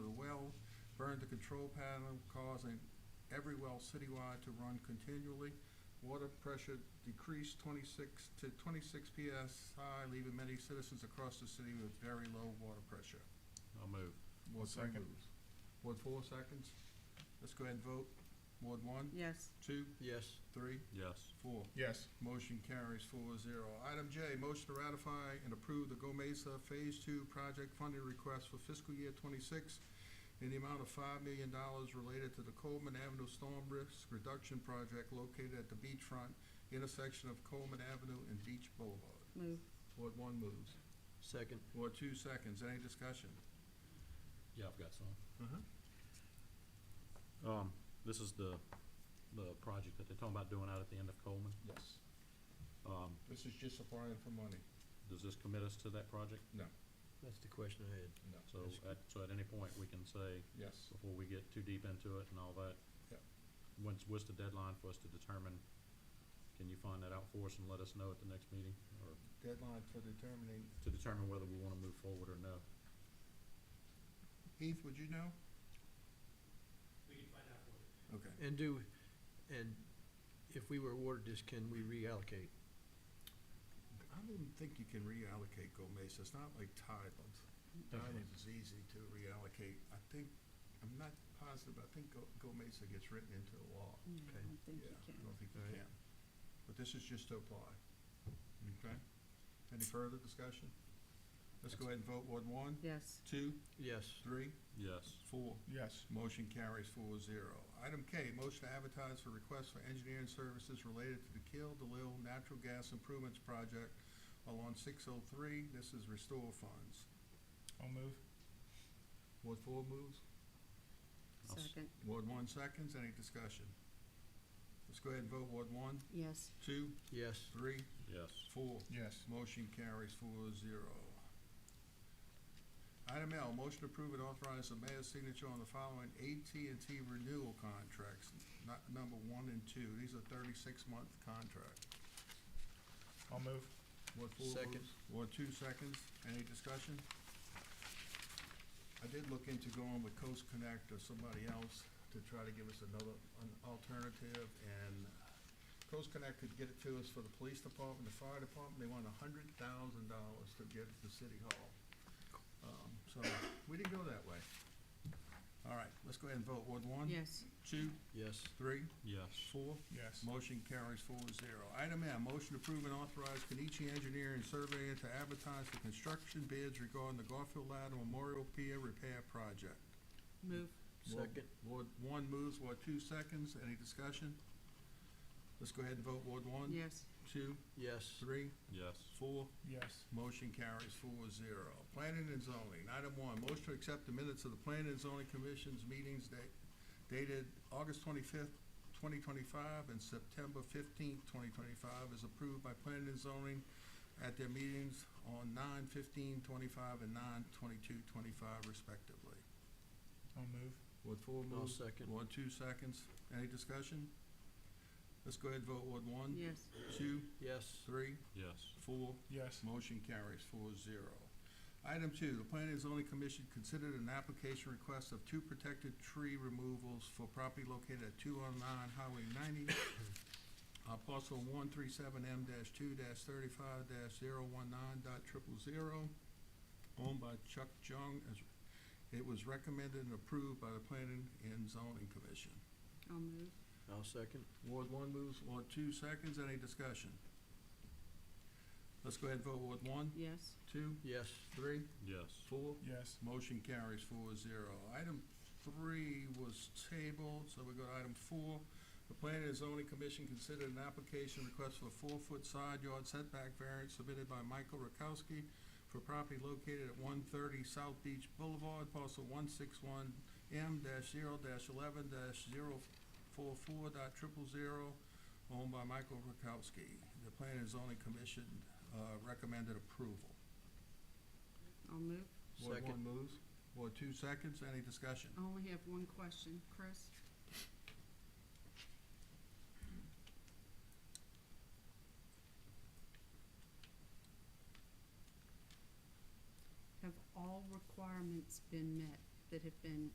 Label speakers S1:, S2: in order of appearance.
S1: Burn the control panel, causing every well citywide to run continually. Water pressure decreased twenty-six to twenty-six PSI, leaving many citizens across the city with very low water pressure.
S2: I'll move.
S1: Ward three
S2: Second.
S1: moves. Ward four seconds. Let's go ahead and vote. Ward one,
S3: yes,
S1: two,
S4: Yes.
S1: three,
S2: Yes.
S1: four.
S4: Yes.
S1: Motion carries four zero. Item J, motion to ratify and approve the Gomesa Phase Two project funding request for fiscal year twenty-six in the amount of five million dollars related to the Coleman Avenue Storm Risk Reduction Project located at the beachfront intersection of Coleman Avenue and Beach Boulevard.
S3: move,
S1: Ward one moves.
S4: Second.
S1: Ward two seconds. Any discussion?
S2: Yeah, I've got some.
S1: Uh-huh.
S2: Um, this is the, the project that they're talking about doing out at the end of Coleman.
S1: Yes.
S2: Um,
S1: This is just applying for money.
S2: does this commit us to that project?
S4: That's the question I had.
S1: No.
S2: So
S4: Yes.
S2: at, so at any point, we can say,
S1: Yes.
S2: before we get too deep into it and all that.
S1: Yeah.
S2: When's, what's the deadline for us to determine? Can you find that out for us and let us know at the next meeting, or
S1: Deadline for determining.
S2: to determine whether we wanna move forward or no?
S1: Heath, would you know? We can find out for you. Okay.
S4: And do, and if we were awarded this, can we reallocate?
S1: I didn't think you can reallocate Gomez, it's not like Thailand. Thailand is easy to reallocate, I think, I'm not positive, but I think Go- Gomez gets written into the law.
S3: Yeah, I
S4: Okay.
S3: don't think you
S1: Yeah, I
S3: can.
S1: don't think you
S4: Alright.
S1: can, but this is just to apply. Okay, any further discussion? Let's go ahead and vote, Ward one,
S3: Yes,
S1: two,
S4: Yes.
S1: three,
S2: Yes.
S1: four.
S4: Yes.
S1: Motion carries four zero. Item K, motion to advertise for requests for engineering services related to the Kill DeLille Natural Gas Improvements Project along six oh three. This is restore funds.
S4: I'll move.
S1: Ward four moves.
S2: I'll s-
S3: second,
S1: Ward one seconds. Any discussion? Let's go ahead and vote. Ward one,
S3: yes,
S1: two,
S4: Yes.
S1: three,
S2: Yes.
S1: four.
S4: Yes.
S1: Motion carries four zero. Item L, motion to approve and authorize the mayor's signature on the following AT&T renewal contracts, not number one and two. These are thirty-six month contracts.
S4: I'll move.
S1: Ward four
S4: Second.
S1: moves. Ward two seconds. Any discussion? I did look into going with Coast Connect or somebody else to try to give us another, an alternative, and Coast Connect could get it to us for the police department, the fire department, they want a hundred thousand dollars to get it to City Hall. Um, so, we didn't go that way. All right, let's go ahead and vote. Ward one,
S3: yes,
S1: two,
S4: Yes.
S1: three,
S2: Yes.
S1: four,
S4: Yes.
S1: Motion carries four zero. Item M, motion to approve and authorize Kenichi Engineering and Surveyor to advertise for construction bids regarding the Garfield Ladder Memorial Pier Repair Project.
S3: move,
S1: Ward-
S4: Second.
S1: Ward one moves, Ward two seconds. Any discussion? Let's go ahead and vote. Ward one,
S3: yes,
S1: two,
S4: Yes.
S1: three,
S2: Yes.
S1: four.
S4: Yes.
S1: Motion carries four zero. Planning and zoning, item one, motion to accept the minutes of the Planning and Zoning Commission's meetings da- dated August twenty-fifth, twenty twenty-five, and September fifteenth, twenty twenty-five, is approved by Planning and Zoning at their meetings on nine fifteen twenty-five and nine twenty-two twenty-five respectively.
S4: I'll move.
S1: Ward four
S4: I'll
S1: moves.
S4: second.
S1: Ward two seconds. Any discussion? Let's go ahead and vote. Ward one,
S3: yes,
S1: two,
S4: Yes.
S1: three,
S2: Yes.
S1: four,
S4: Yes.
S1: Motion carries four zero. Item two, the Planning and Zoning Commission considered an application request of two protected tree removals for property located at two oh nine Highway ninety, uh, parcel one three seven M two thirty-five 19 owned by Chuck Jung. As It was recommended and approved by the Planning and Zoning Commission.
S3: I'll move,
S4: I'll second.
S1: Ward one moves, Ward two seconds, any discussion? Let's go ahead and vote. Ward one,
S3: yes,
S1: two,
S4: Yes.
S1: three,
S2: Yes.
S1: four.
S4: Yes.
S1: Motion carries four zero. Item three was tabled, so we go to item four. The Planning and Zoning Commission considered an application request for a four-foot side yard setback variance submitted by Michael Rakowski for property located at one thirty South Beach Boulevard, parcel one six one M dash zero dash eleven dash zero four four dot triple zero, owned by Michael Rakowski. The Planning and Zoning Commission, uh, recommended approval.
S3: I'll move.
S1: Ward one
S4: Second.
S1: moves. Ward two seconds. Any discussion?
S3: I only have one question, Chris. Have all requirements been met that have been